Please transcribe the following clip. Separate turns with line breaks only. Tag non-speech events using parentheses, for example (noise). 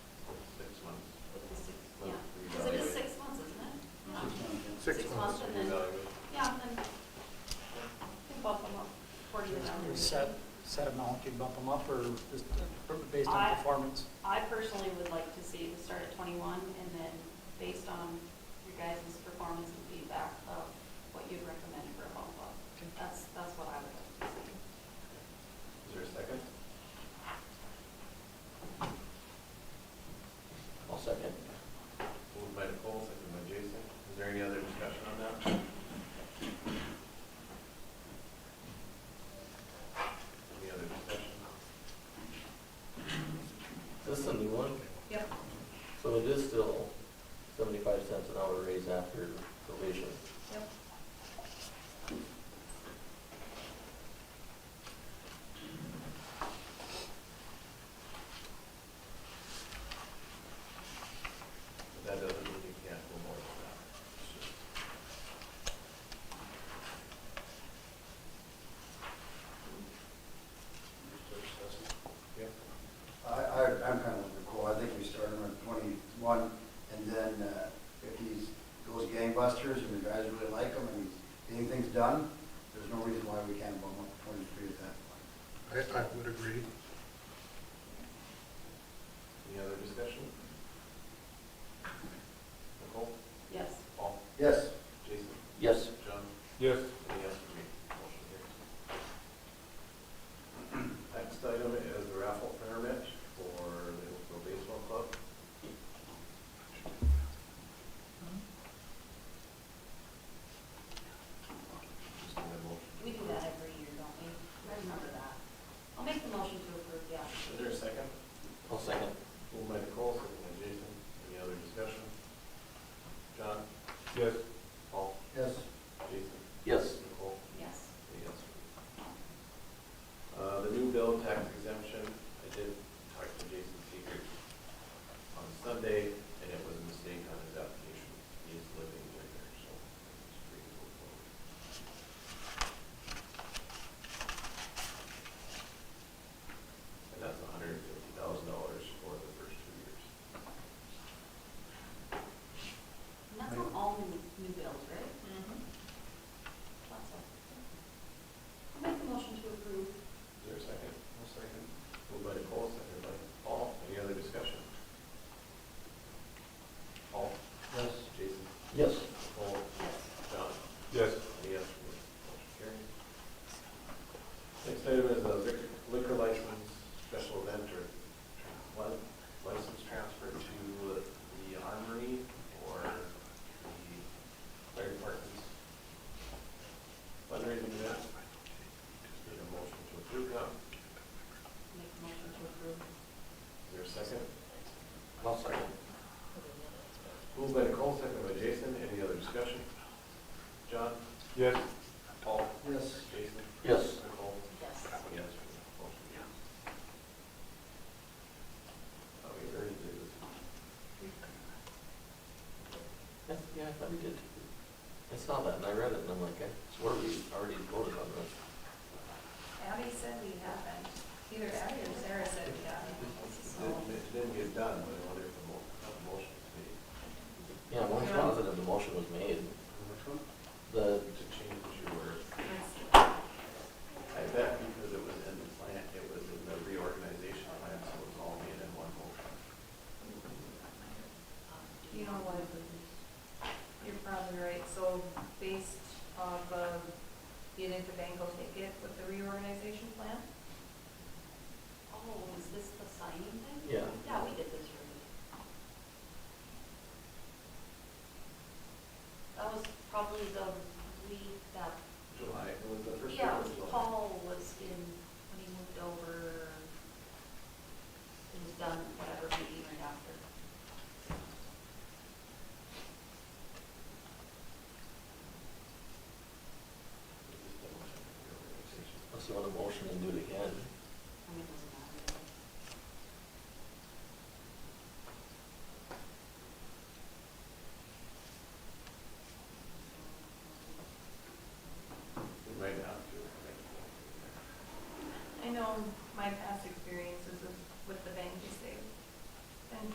month and then, yeah, and then we bump them up according to numbers.
Set, set amount, you bump them up or just based on
I-
performance?
I personally would like to see it start at twenty-one and then based on your guys' performance and feedback of what you'd recommend for a bump up. That's, that's what I would like to see.
Is there a second?
I'll second.
Moved by Nicole, second by Jason. Is there any other discussion on that? Any other discussion?
Is this a new one?
Yep.
So it is still seventy-five cents an hour raise after provision.
Yep.
But that doesn't mean you can't go more than that. It's just- Yep.
I, I, I'm kind of with Nicole, I think we start him at twenty-one, and then, uh, if he's, goes gangbusters, and the guys really like him, and anything's done, there's no reason why we can't bump him up to twenty-three at that point.
I, I would agree.
Any other discussion? Nicole?
Yes.
Paul?
Yes,
Jason?
Yes.
John?
Yes.
Any yes for me? Motion carries. (clears throat) Next item is the raffle permit for the Hillsborough Baseball Club. Just need a motion.
We do that every year, don't we? I remember that. I'll make the motion to approve the
Is
application.
there a second?
I'll second.
Moved by Nicole, second by Jason. Any other discussion? John?
Yes.
Paul?
yes,
Jason?
Yes.
Nicole?
Yes.
Yes. Uh, the new bill tax exemption, I did talk to Jason Seeger on Sunday, and it was a mistake on his application. He is living near there, so it's free to go forward. And that's hundred and fifty thousand dollars for the first two years.
And that's on all new, new bills, right? That's all. I'll make the motion to approve.
Is there a second? No second. Moved by Nicole, seconded by Paul. Any other discussion? Paul?
yes.
Jason?
Yes.
Paul?
Yes.
John?
Yes.
Any yes for motion carried. Next item is a lic- liquor license special event or li- license transfer to the Armory or the fire department's fundraising event. Just need a motion to approve that.
Make the motion to approve.
Is there a second?
I'll second.
Moved by Nicole, second by Jason. Any other discussion? John?
Yes.
Paul?
Yes.
Jason?
Yes.
Nicole?
Yes.
Yes. Motion carries. Oh, we already did this.
Yeah, yeah, I thought we did. I saw that and I read it and I'm like, I swear we already voted on this.
Abby said we haven't. Either Abby or Sarah said we haven't. So,
It- It didn't get done, but I wonder if the mo- a motion was made.
Yeah, I'm almost
Yeah.
positive the motion was made.
Which one?
The,
To change your,
it's-
I bet because it was in the plan, it was in the reorganization plan, so it was all made in one motion.
You know what? You're probably right. So based off of, you think the bank will take it with the reorganization plan?
Oh, is this the signing thing?
yeah.
Yeah, we did this already. That was probably the week that,
July, it was the first.
yeah,
week
it was
of July.
Paul was in, when he moved over. It was done, whatever, meeting right after.
Just the motion for reorganization.
Unless you want a motion and do it again.
I mean, it doesn't matter.
We might have to. I think.
I know my past experience